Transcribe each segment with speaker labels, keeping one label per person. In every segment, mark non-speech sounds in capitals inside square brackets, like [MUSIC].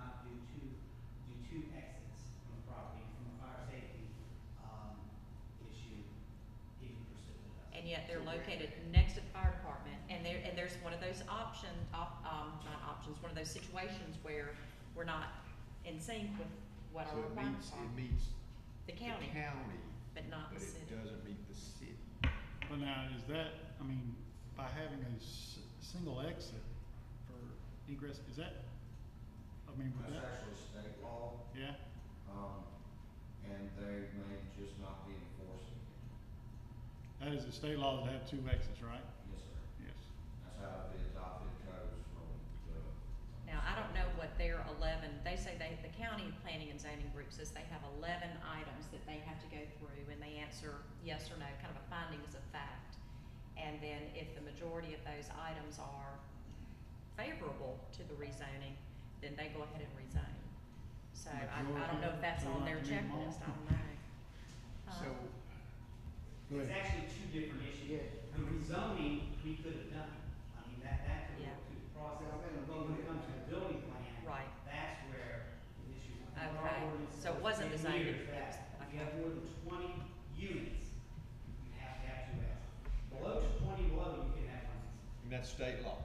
Speaker 1: um,
Speaker 2: located next to the fire department, and there, and there's one of those option, op- um, not options, one of those situations where we're not in sync with what our
Speaker 3: So it
Speaker 2: requirements
Speaker 3: meets,
Speaker 2: are.
Speaker 3: it meets
Speaker 2: The
Speaker 3: the
Speaker 2: county,
Speaker 3: county,
Speaker 2: but not
Speaker 3: but
Speaker 2: the
Speaker 3: it
Speaker 2: city.
Speaker 3: doesn't meet the city.
Speaker 4: But now, is that, I mean, by having a s- single exit for egress, is that, I mean, would
Speaker 5: That's
Speaker 4: that,
Speaker 5: actually state law,
Speaker 4: yeah?
Speaker 5: um, and they may just not be enforcing it.
Speaker 4: That is a state law that have two exits, right?
Speaker 5: Yes, sir.
Speaker 4: Yes.
Speaker 5: That's how the adopted codes from the.
Speaker 2: Now, I don't know what their eleven, they say they, the county planning and zoning group says they have eleven items that they have to go through, and they answer yes or no, kind of a findings of fact. And then if the majority of those items are favorable to the rezoning, then they go ahead and rezone. So I, I don't know if that's on their
Speaker 4: Majority,
Speaker 2: checklist,
Speaker 4: so
Speaker 2: I
Speaker 4: like
Speaker 2: don't know. Uh, Huh?
Speaker 3: So. Go
Speaker 1: It's
Speaker 3: ahead.
Speaker 1: actually two different issues. The rezoning, we could have done, I mean, that, that could work through the process, but when it comes to the building plan,
Speaker 2: Right,
Speaker 1: that's where the issue. was. Our
Speaker 2: Okay,
Speaker 1: ordinance
Speaker 2: so it wasn't
Speaker 1: says
Speaker 2: the
Speaker 1: ten
Speaker 2: same.
Speaker 1: years that If you have more than twenty units, you have to have two exits. Below twenty, below, you can have one exit.
Speaker 3: And that's state law.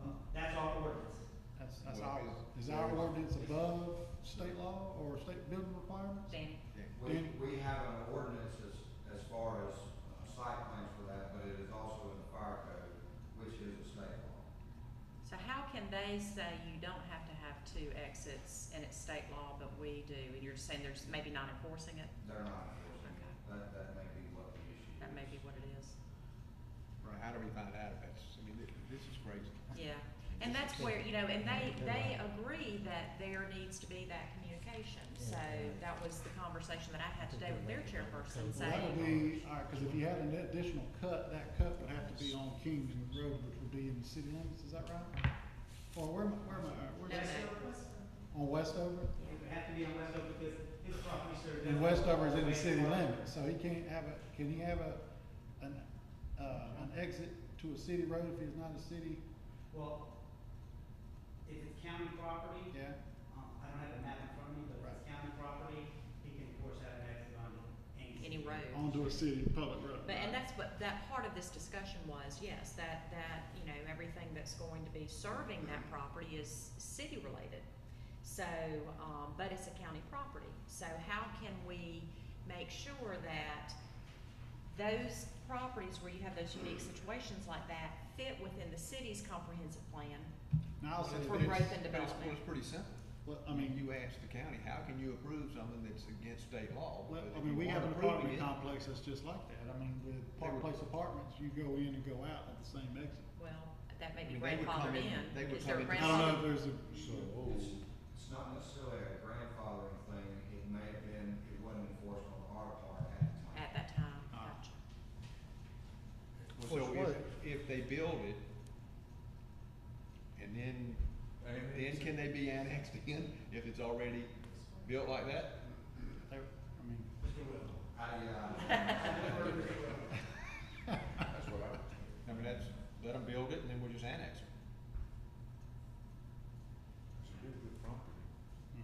Speaker 1: Well, That's our ordinance.
Speaker 4: That's, that's
Speaker 3: Well,
Speaker 4: our,
Speaker 3: is-
Speaker 4: is our
Speaker 3: is-
Speaker 4: ordinance above state law or state building requirements?
Speaker 2: Danny,
Speaker 3: Yeah.
Speaker 5: We, we have an ordinance as, as far as uh, site plans for that, but it is also in the fire code, which is a state law.
Speaker 2: so how can they say you don't have to have two exits and it's state law, but we do, and you're saying they're just maybe not enforcing it?
Speaker 5: They're not enforcing it.
Speaker 2: Okay.
Speaker 5: That, that may be what the issue is.
Speaker 2: That may be what it is.
Speaker 3: Right, how do we find out if that's, I mean, thi- this is crazy.
Speaker 2: Yeah, and that's where, you know, and they, they agree that there needs to be that communication. So that was the conversation that I had today with their chairperson
Speaker 4: Well, that would
Speaker 2: saying,
Speaker 4: be, all right, cause if you had an additional cut, that cut would have to be on Kings Road, which would be in the city limits, is that right? Or where am I, where am I, where
Speaker 2: No,
Speaker 4: is
Speaker 2: no.
Speaker 4: it? on Westover?
Speaker 1: It would have to be on Westover because his property serves.
Speaker 4: And Westover is in the city limits, so he can't have a, can he have a, an, uh, an exit to a city road if he's not a city?
Speaker 1: Well, if it's county property,
Speaker 4: Yeah,
Speaker 1: Um, I don't have the map in front of me, but if it's county property, he can force out an exit on any.
Speaker 2: any
Speaker 1: street.
Speaker 2: road.
Speaker 4: onto a city public road.
Speaker 2: But, and that's what, that part of this discussion was, yes, that, that, you know, everything that's going to be serving that property is city related. So, um, but it's a county property, so how can we make sure that those properties where you have those unique situations like that fit within the city's comprehensive plan?
Speaker 4: Now, I'll say
Speaker 2: For
Speaker 4: this,
Speaker 2: growth and
Speaker 3: But it's- Well,
Speaker 2: development.
Speaker 3: it's pretty simple.
Speaker 4: well, I
Speaker 3: I mean, you
Speaker 4: mean,
Speaker 3: ask the county, how can you approve something that's against state law?
Speaker 4: well,
Speaker 3: Because
Speaker 4: I
Speaker 3: if
Speaker 4: mean,
Speaker 3: you
Speaker 4: we
Speaker 3: aren't
Speaker 4: have an
Speaker 3: approving
Speaker 4: apartment
Speaker 3: it-
Speaker 4: complex that's just like that, I mean, with Park Place Apartments, you go in and go out at the same exit.
Speaker 2: Well, that may
Speaker 3: I
Speaker 2: be
Speaker 3: mean, they would come
Speaker 2: grandfathered
Speaker 3: in-
Speaker 2: in,
Speaker 3: they would
Speaker 2: is there
Speaker 3: come in-
Speaker 4: I don't know
Speaker 2: grandfathered?
Speaker 4: if there's a,
Speaker 5: It's, it's not necessarily a grandfathering thing, it may have been, it wasn't enforced on our part at the time.
Speaker 2: At that time,
Speaker 4: Ah.
Speaker 2: gotcha.
Speaker 3: Well, So if, if they build it, and then, then can they be annexed [LAUGHS] in if it's already built like that?
Speaker 4: there, I mean,
Speaker 5: I,
Speaker 2: [LAUGHS]
Speaker 5: uh,
Speaker 3: That's what I. I mean, that's, let them build it and then we'll just annex it.
Speaker 4: yeah.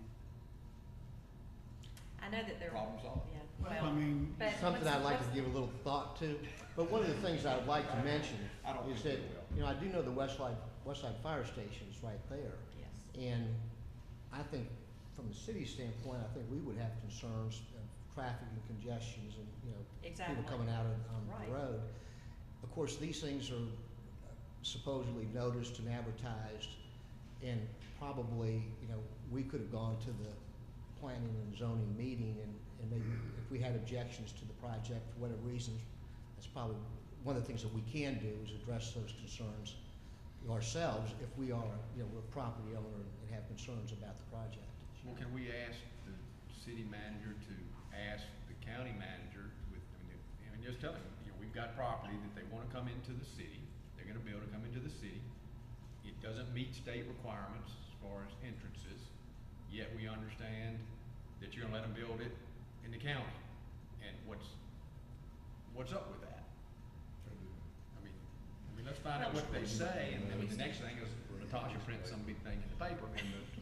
Speaker 2: I know that there,
Speaker 3: Problem solved.
Speaker 2: yeah,
Speaker 4: I
Speaker 2: well,
Speaker 4: mean,
Speaker 2: but.
Speaker 6: something
Speaker 2: what's-
Speaker 6: I'd like
Speaker 2: what's-
Speaker 6: to give a little thought to, but one of the things I'd like to mention
Speaker 3: I don't
Speaker 6: is that,
Speaker 3: think they will.
Speaker 6: you know, I do know the Westside, Westside Fire Station's right there.
Speaker 2: Yes.
Speaker 6: And I think, from the city standpoint, I think we would have concerns of traffic and congestions and, you know, people
Speaker 2: Exactly.
Speaker 6: coming out of- on
Speaker 2: Right.
Speaker 6: the road. Of course, these things are supposedly noticed and advertised, and probably, you know, we could have gone to the planning and zoning meeting, and, and maybe if we had objections to the project for whatever reasons, that's probably, one of the things that we can do is address those concerns ourselves if we are, you know, we're a property owner and have concerns about the project.
Speaker 3: Well, can we ask the city manager to ask the county manager with, I mean, if- I mean, just tell him, you know, we've got property that they wanna come into the city, they're gonna be able to come into the city. It doesn't meet state requirements as far as entrances, yet we understand that you're gonna let them build it in the county. And what's, what's up with that? I mean, I mean, let's find out what they say, and then the next thing is Latasha prints some big thing in the paper.